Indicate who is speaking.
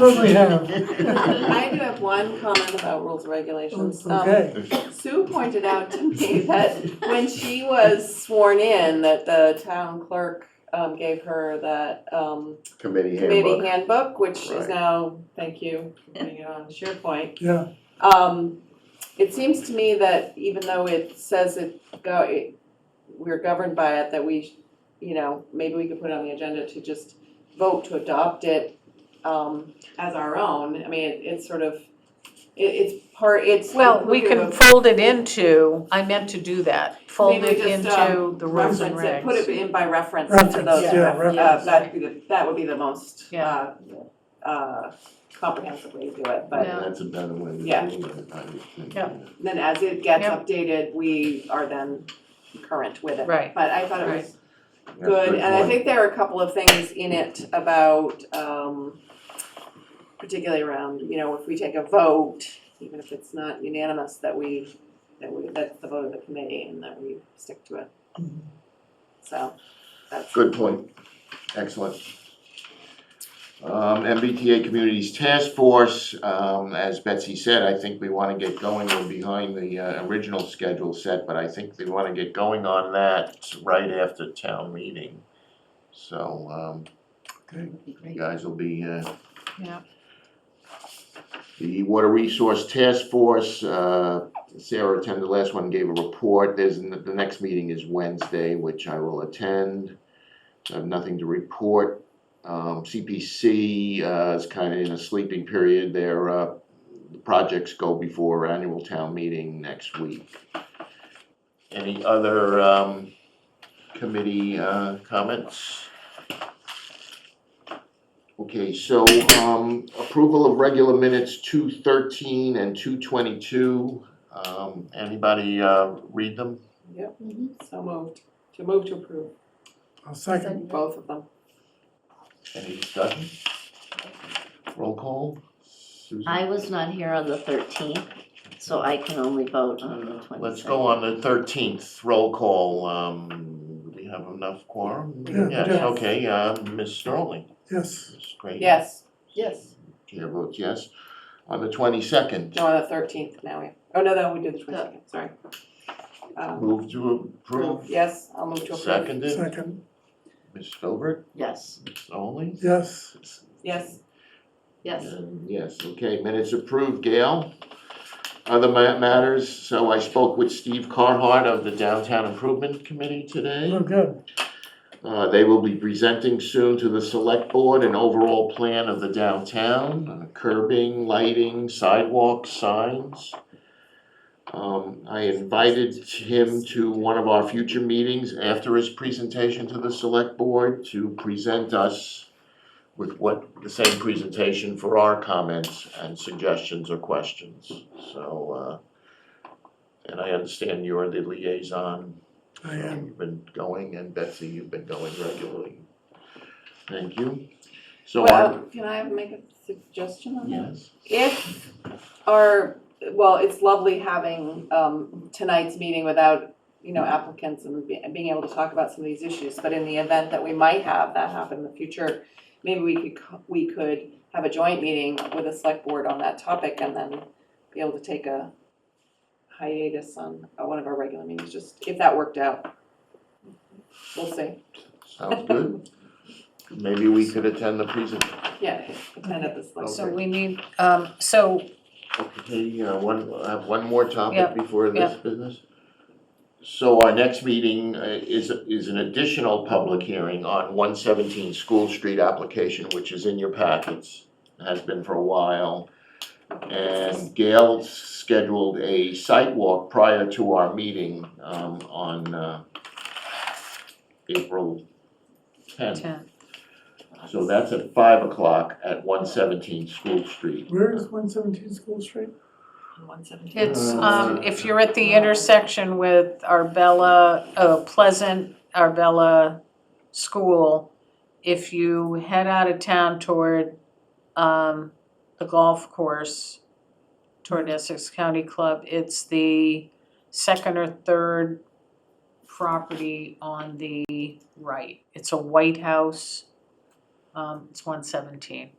Speaker 1: Certainly
Speaker 2: Um,
Speaker 1: have.
Speaker 3: I do have one comment about rules and regulations. Um,
Speaker 1: Okay,
Speaker 3: Sue pointed out to me that when she was sworn in, that the town clerk um, gave her that um,
Speaker 2: Committee
Speaker 3: committee
Speaker 2: handbook.
Speaker 3: handbook, which is
Speaker 2: Right.
Speaker 3: now, thank you, for putting it on SharePoint.
Speaker 1: yeah,
Speaker 3: Um, it seems to me that even though it says it go, it, we're governed by it, that we, sh- you know, maybe we could put it on the agenda to just vote to adopt it, um, as our own. I mean, it, it's sort of, it, it's part, it's.
Speaker 4: Well, we can
Speaker 3: inclusive
Speaker 4: fold it into, I meant to do that, fold
Speaker 3: Maybe
Speaker 4: it
Speaker 3: we just, um,
Speaker 4: into the
Speaker 3: of
Speaker 4: rules and
Speaker 3: Reference it, put it
Speaker 4: regs.
Speaker 3: in by reference to
Speaker 1: reference,
Speaker 3: those.
Speaker 1: yeah,
Speaker 3: Uh,
Speaker 1: reference.
Speaker 3: that'd be the, that would be the most, uh,
Speaker 4: Yeah.
Speaker 3: uh, comprehensive way to do it, but
Speaker 4: Yeah.
Speaker 2: That's a better way to do
Speaker 3: Yeah.
Speaker 2: it. I think.
Speaker 4: Yeah.
Speaker 3: then as it gets
Speaker 4: Yep.
Speaker 3: updated, we are then current with it.
Speaker 4: Right.
Speaker 3: But I thought it was
Speaker 2: Yeah,
Speaker 3: good, and I
Speaker 2: point.
Speaker 3: think there are a couple of things in it about, um, particularly around, you know, if we take a vote, even if it's not unanimous, that we, that we, that's the vote of the committee and that we stick to it. So, that's.
Speaker 2: Good point. Excellent. Um, MBTA Communities Task Force, um, as Betsy said, I think we wanna get going. We're behind the, uh, original schedule set, but I think we wanna get going on that right after town meeting. So, um,
Speaker 1: Okay.
Speaker 2: you guys will be, uh,
Speaker 4: Yeah.
Speaker 2: The Water Resource Task Force, uh, Sarah attended the last one, gave a report. There's, n- the next meeting is Wednesday, which I will attend. I have nothing to report. Um, CPC uh, is kind of in a sleeping period. Their uh, the projects go before annual town meeting next week. Any other um, committee uh, comments? Okay, so um, approval of regular minutes two thirteen and two twenty-two. Um, Anybody uh, read them?
Speaker 3: Yep, so moved, to move to approve,
Speaker 1: I'll second,
Speaker 3: both of them.
Speaker 2: Any discussion? Roll call? Susan?
Speaker 5: I was not here on the thirteenth, so I can only vote on the twenty-second.
Speaker 2: Let's go on the thirteenth, roll call, um, do we have enough quorum?
Speaker 1: Yeah, we
Speaker 2: Yes,
Speaker 1: do.
Speaker 2: okay, uh, Ms. Sterling,
Speaker 1: yes,
Speaker 2: Ms. Craig.
Speaker 3: Yes,
Speaker 5: Yes.
Speaker 2: Chair votes yes. On the twenty-second,
Speaker 3: no, on the thirteenth now, we- oh, no, no, we did the twenty-second, sorry. Um,
Speaker 2: move to approve,
Speaker 3: Yes, I'll move to approve.
Speaker 2: seconded,
Speaker 1: second,
Speaker 2: Ms. Filbert,
Speaker 5: Yes.
Speaker 2: Ms. Sterling?
Speaker 1: yes,
Speaker 3: Yes,
Speaker 5: Yes.
Speaker 2: And um, Yes, okay, minutes approved, Gail. Other ma- matters, so I spoke with Steve Carhart of the Downtown Improvement Committee today.
Speaker 1: oh, good,
Speaker 2: Uh, they will be presenting soon to the select board an overall plan of the downtown, uh, curbing, lighting, sidewalks, signs. Um, I invited him to one of our future meetings after his presentation to the select board to present us with what, the same presentation for our comments and suggestions or questions, so, uh, and I understand you're the liaison
Speaker 1: I
Speaker 2: so
Speaker 1: am,
Speaker 2: You've been going, and Betsy, you've been going regularly. Thank you. So I,
Speaker 3: well, can I make a suggestion on that?
Speaker 2: yes,
Speaker 3: If our, well, it's lovely having um tonight's meeting without, you know, applicants and be- being able to talk about some of these issues, but in the event that we might have that happen in the future, maybe we could, co- we could have a joint meeting with the select board on that topic and then be able to take a hiatus on uh, one of our regular meetings, just if that worked out. We'll see,
Speaker 2: sounds good. Maybe we could attend the present,
Speaker 3: yeah, attend at the select.
Speaker 4: So we need, um, so,
Speaker 2: okay, uh, one, I have one more topic
Speaker 4: Yeah,
Speaker 2: before this business. So our next meeting uh, is, is an additional public hearing on one seventeen School Street application, which is in your packets, has been for a while. And Gail scheduled a site walk prior to our meeting, um, on, uh, April tenth.
Speaker 4: ten,
Speaker 2: So that's at five o'clock at one seventeen School Street.
Speaker 1: where is one seventeen School Street?
Speaker 3: One seventeen.
Speaker 4: it's, um, if you're at the intersection with Arbella, uh, Pleasant, Arbella School, if you head out of town toward, um, the golf course, toward Essex County Club, it's the second or third property on the right. It's a white house. um, it's one seventeen.